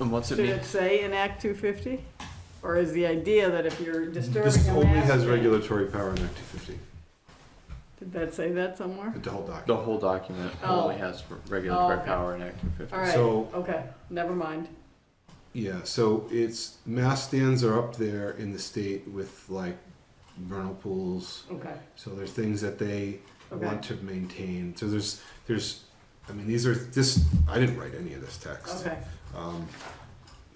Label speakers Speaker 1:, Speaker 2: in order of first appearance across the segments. Speaker 1: And what's it
Speaker 2: Should
Speaker 1: mean?
Speaker 2: it say in Act 250? Or is the idea that if you're disturbing
Speaker 3: This
Speaker 2: a
Speaker 3: only has
Speaker 2: master-
Speaker 3: regulatory power in Act 250,
Speaker 2: Did that say that somewhere?
Speaker 3: the whole document.
Speaker 1: The whole document
Speaker 2: Oh.
Speaker 1: only has regulatory
Speaker 2: Oh, okay.
Speaker 1: power in Act 250.
Speaker 2: All right,
Speaker 3: So-
Speaker 2: okay, never mind.
Speaker 3: Yeah, so it's mass stands are up there in the state with like vernal pools.
Speaker 2: Okay,
Speaker 3: So there's things that they
Speaker 2: okay,
Speaker 3: want to maintain. So there's there's, I mean these are this. I didn't write any of this text.
Speaker 2: okay.
Speaker 3: Um,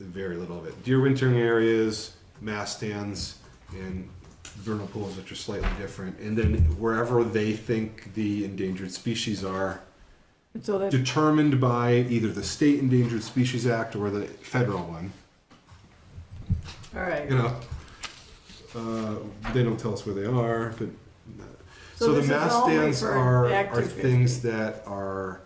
Speaker 3: very little of it. Deer wintering areas, mass stands, and vernal pools, which are slightly different. And then wherever they think the endangered species are,
Speaker 2: So that,
Speaker 3: determined by either the state Endangered Species Act or the federal one.
Speaker 2: all right.
Speaker 3: You know, uh, they don't tell us where they are, but. uh,
Speaker 2: So
Speaker 3: So, the
Speaker 2: this is
Speaker 3: mass
Speaker 2: only
Speaker 3: stands
Speaker 2: for
Speaker 3: are
Speaker 2: Act
Speaker 3: are
Speaker 2: 250.
Speaker 3: things that are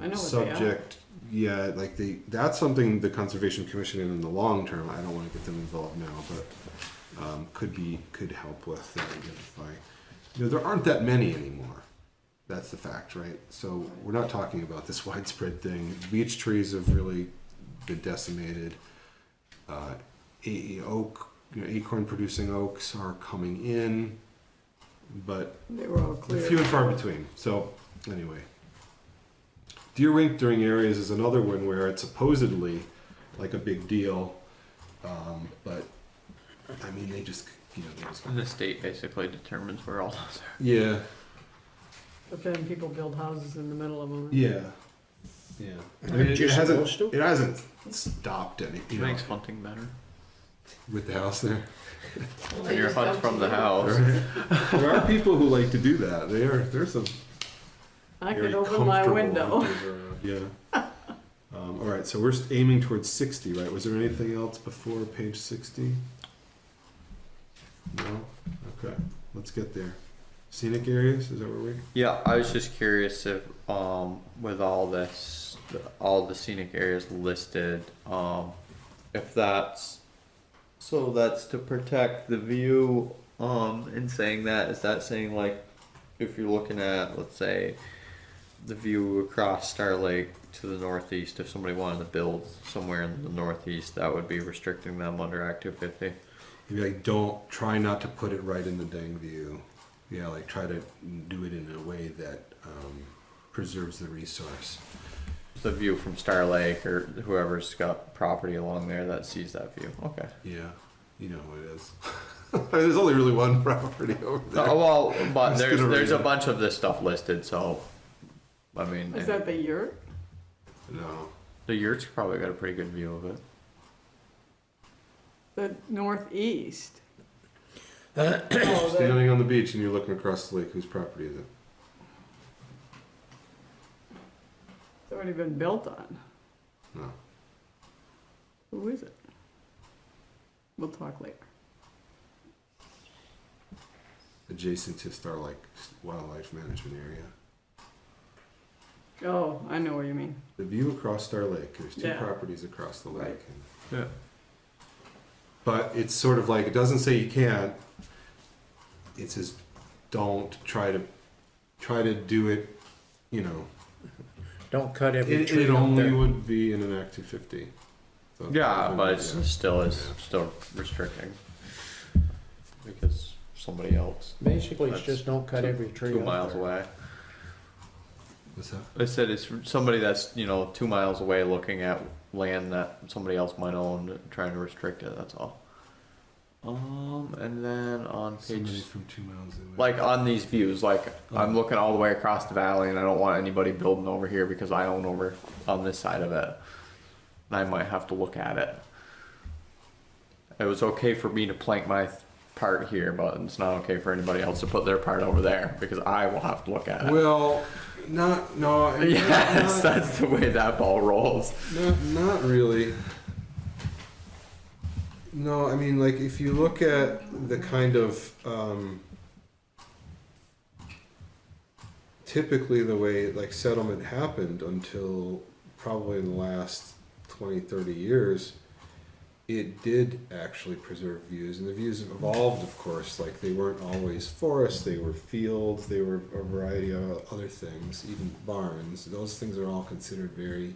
Speaker 2: I know what they are.
Speaker 3: subject. Yeah, like the that's something the Conservation Commission in the long term. I don't want to get them involved now, but um, could be could help with and identify. You know, there aren't that many anymore. That's the fact, right? So we're not talking about this widespread thing. Beech trees have really been decimated. Uh, a- oak, you know, acorn-producing oaks are coming in, but
Speaker 2: They were all
Speaker 3: they're Few
Speaker 2: clear.
Speaker 3: and far between. So anyway, deer wintering areas is another one where it's supposedly like a big deal, um, but I mean they just you know they just
Speaker 1: The state basically determines where all those are.
Speaker 3: yeah
Speaker 2: But then people build houses in the middle of them.
Speaker 3: yeah yeah. It, it hasn't it hasn't stopped any you know
Speaker 1: Makes hunting better.
Speaker 3: with the house there.
Speaker 1: When you're hunting from the house.
Speaker 3: there are people who like to do that. They are there's some
Speaker 2: I
Speaker 3: very
Speaker 2: could open my
Speaker 3: comfortable
Speaker 2: window.
Speaker 3: hunters around, Yeah. Um, all right, so we're s- aiming towards 60, right? Was there anything else before page 60? No? Okay, let's get there. Scenic areas, is that where we?
Speaker 1: Yeah, I was just curious if, um, with all this, all the scenic areas listed, um, if that's, so that's to protect the view, um, in saying that, is that saying like, if you're looking at, let's say, the view across Star Lake to the northeast, if somebody wanted to build somewhere in the northeast, that would be restricting them under Act two fifty?
Speaker 3: Maybe like, don't, try not to put it right in the dang view. Yeah, like try to do it in a way that um, preserves the resource.
Speaker 1: The view from Star Lake or whoever's got property along there that sees that view, okay.
Speaker 3: Yeah, you know what it is. There's only really one property over there.
Speaker 1: Oh, well, but
Speaker 3: Just
Speaker 1: there's
Speaker 3: gonna
Speaker 1: there's
Speaker 3: read
Speaker 1: a
Speaker 3: it.
Speaker 1: bunch of this stuff listed, so I mean,
Speaker 2: Is that the yurt?
Speaker 3: No.
Speaker 1: the yurt's probably got a pretty good view of it.
Speaker 2: The northeast?
Speaker 3: You're Standing on the beach and you're looking across the lake, whose property is it?
Speaker 2: It's already been built on.
Speaker 3: No.
Speaker 2: Who is it? We'll talk later.
Speaker 3: Adjacent to Star Lake Wildlife Management Area.
Speaker 2: Oh, I know what you mean.
Speaker 3: The view across Star Lake, there's two
Speaker 2: Yeah.
Speaker 3: properties across the lake.
Speaker 2: Right.
Speaker 3: and-
Speaker 1: Yeah.
Speaker 3: But it's sort of like, it doesn't say you can't. It says, don't try to, try to do it, you know.
Speaker 4: Don't cut every
Speaker 3: It,
Speaker 4: tree
Speaker 3: it
Speaker 4: up
Speaker 3: only
Speaker 4: there.
Speaker 3: would be in an Act two fifty.
Speaker 1: Yeah, Uh, but it's
Speaker 3: Yeah.
Speaker 1: still is still restricting because somebody else
Speaker 4: Basically, it's
Speaker 1: That's
Speaker 4: just don't cut
Speaker 1: two-
Speaker 4: every tree
Speaker 1: two
Speaker 4: up
Speaker 1: miles
Speaker 4: there.
Speaker 1: away.
Speaker 3: What's that?
Speaker 1: I said it's somebody that's you know two miles away looking at land that somebody else might own, trying to restrict it. That's all. Um, and then on
Speaker 3: Somebody
Speaker 1: page
Speaker 3: from two miles away.
Speaker 1: like on these views like i'm looking all the way across the valley and i don't want anybody building over here because i own over on this side of it and i might have to look at it it was okay for me to plank my th- part here but it's not okay for anybody else to put their part over there because i will have to look at it
Speaker 3: Well, not, no. not-
Speaker 1: yes
Speaker 3: not-
Speaker 1: that's the way that ball rolls
Speaker 3: Not, not really. No, I mean, like, if you look at the kind of, um, typically the way, like, settlement happened until probably in the last 20, 30 years, it did actually preserve views, and the views have evolved, of course. Like, they weren't always forests, they were fields, they were a variety of other things, even barns. Those things are all considered very